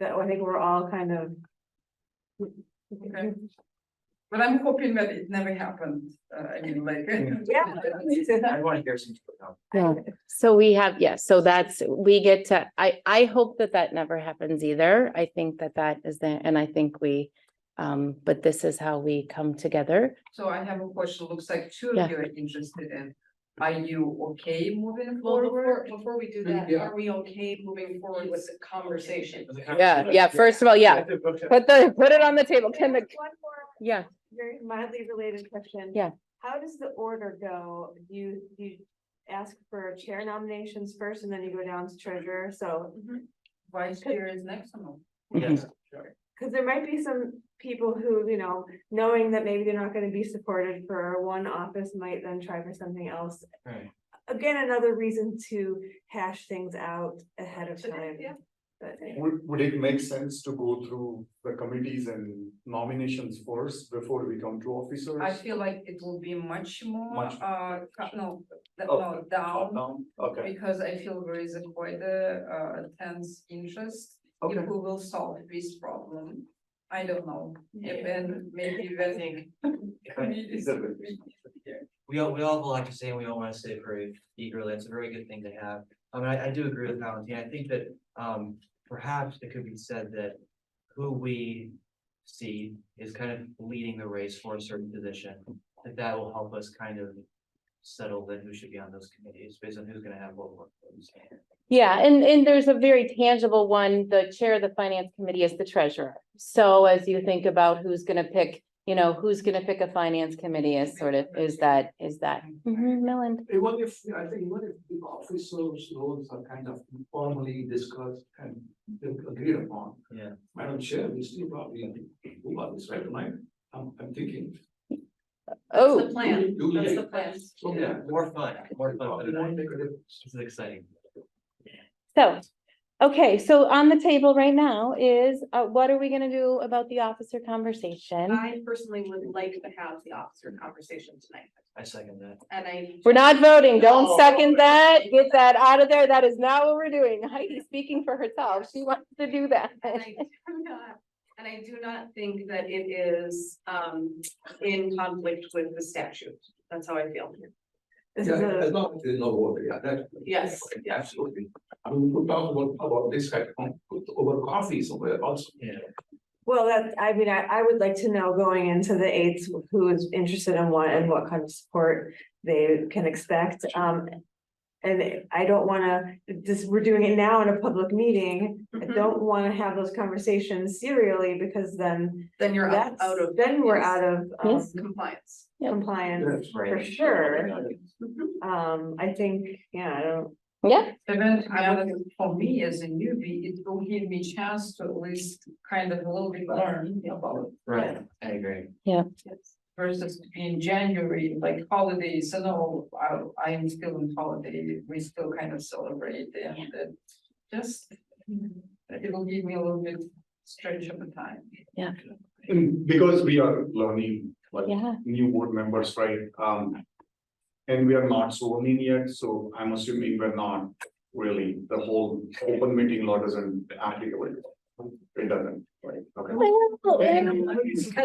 that I think we're all kind of. Okay. But I'm hoping that it never happened, uh, I mean, like. Yeah. I wanna hear some. Yeah. So we have, yes, so that's, we get to, I, I hope that that never happens either. I think that that is the, and I think we, um, but this is how we come together. So I have a question, looks like two Yeah. of you are interested in, are you okay moving Well, before, forward? before we do that, Yeah. are we okay moving forward with the conversation? Yeah, yeah, first of all, yeah, put the, put it on the table, can the, One more yeah. very mildly related question. Yeah. How does the order go? Do You, do you ask for chair nominations first and then you go down to treasurer, so. Vice chair is next or no? Yes. Cause there might be some people who, you know, knowing that maybe they're not gonna be supported for one office might then try for something else. Right. Again, another reason to hash things out ahead of Today, time. yeah. But Would, would it make sense to go through the committees and nominations first before we come to officers? I feel like it will be much more, Much- uh, co- no, that- no, Okay. down. Top down? Okay, Because I feel there is a quite a, uh, tense interest. okay. If we will solve this problem, I don't know, Yeah. and then maybe when. communities Is it- will be here. We all, we all have a lot to say, and we all wanna say it very eagerly, it's a very good thing to have. I mean, I, I do agree with Valentin, I think that, um, perhaps it could be said that who we see is kind of leading the race for a certain position, that that will help us kind of settle then who should be on those committees, based on who's gonna have what workloads. Yeah, and, and there's a very tangible one, the chair of the finance committee is the treasurer. So as you think about who's gonna pick, you know, who's gonna pick a finance committee is sort of, is that, is that, Mhm, Millen? Even if, I think even if the officers' roles are kind of formally discussed and agreed upon. Yeah. Madam Chair, we still probably move on this right tonight, I'm, I'm thinking. That's Oh, the plan, Do that's we- the plan. So, Oh, yeah. More fun, more fun. Probably won't make a difference. This is exciting. so, okay, so on the table right now is, uh, what are we gonna do about the officer conversation? I personally would like to have the officer conversation tonight, I second that. and I. We're not voting, No. don't second that, get that out of there, that is not what we're doing. Heidi's speaking for herself, she wants to do that. And I do not, and I do not think that it is, um, in conflict with the statute, that's how I feel. This is Yeah, a, as long as there's no order, yeah, that. Yes. Yeah, Absolutely. I mean, we'll talk about, about this kind of, over coffee somewhere also. Yeah. well, that, I mean, I, I would like to know going into the eights, who is interested in what and what kind of support they can expect, um. And I don't wanna, this, we're doing it now in a public meeting, I Mm-hmm. don't wanna have those conversations serially, because then Then you're out, that's, out of then we're out of um, Yes. compliance. compliance. Yes. For sure, um, I think, yeah, I don't, Yeah, Even, I I mean, for me as a newbie, it will give me chance to at least kind of a little bit learn about Right, I agree. versus in January, like holidays, and all, I, I'm still on holiday, we still kind of celebrate and then just it will give me a little bit stretch of the time. Yeah. And because we are learning, like, Yeah, new board members, right? Um. And we are not sworn in yet, so I'm assuming we're not really, the whole open meeting law doesn't applicable. It doesn't, right? Okay.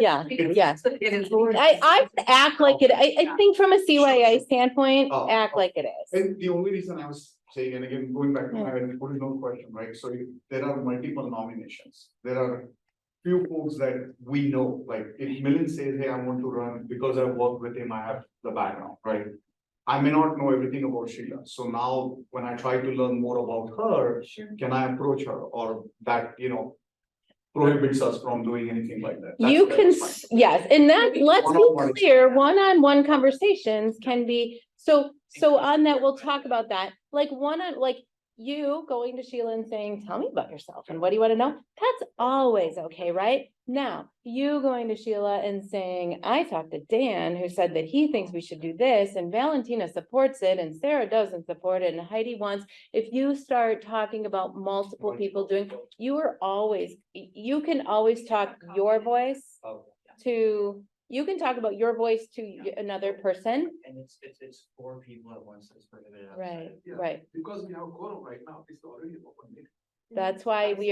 yeah, yes. It is. I, I would act like it, I, I think from a CYA standpoint, Oh, act oh. like it is. And the only reason I was saying, and again, going back to my original question, right, so you- there are multiple nominations, there are. Few folks that we know, like if Millen says, hey, I want to run, because I've worked with him, I have the background, right? I may not know everything about Sheila, so now when I try to learn more about her, Sure. can I approach her or that, you know? Prohibits us from doing anything like that. That's- You can, that's fine. s- yes, and that, let's be One-on-one. clear, one-on-one conversations can be, so, so on that, we'll talk about that. Like one on, like you going to Sheila and saying, tell me about yourself and what do you want to know? That's always okay, right? Now, you going to Sheila and saying, I talked to Dan who said that he thinks we should do this and Valentina supports it and Sarah doesn't support it and Heidi wants. If you start talking about multiple people doing, you are always, y- you can always talk your voice Oh, yeah. to, you can talk about your voice to y- another person. And it's, it's, it's four people at once, it's prohibited outside. Right, Yeah. right. Because we have quorum right now, it's already open meeting. That's why we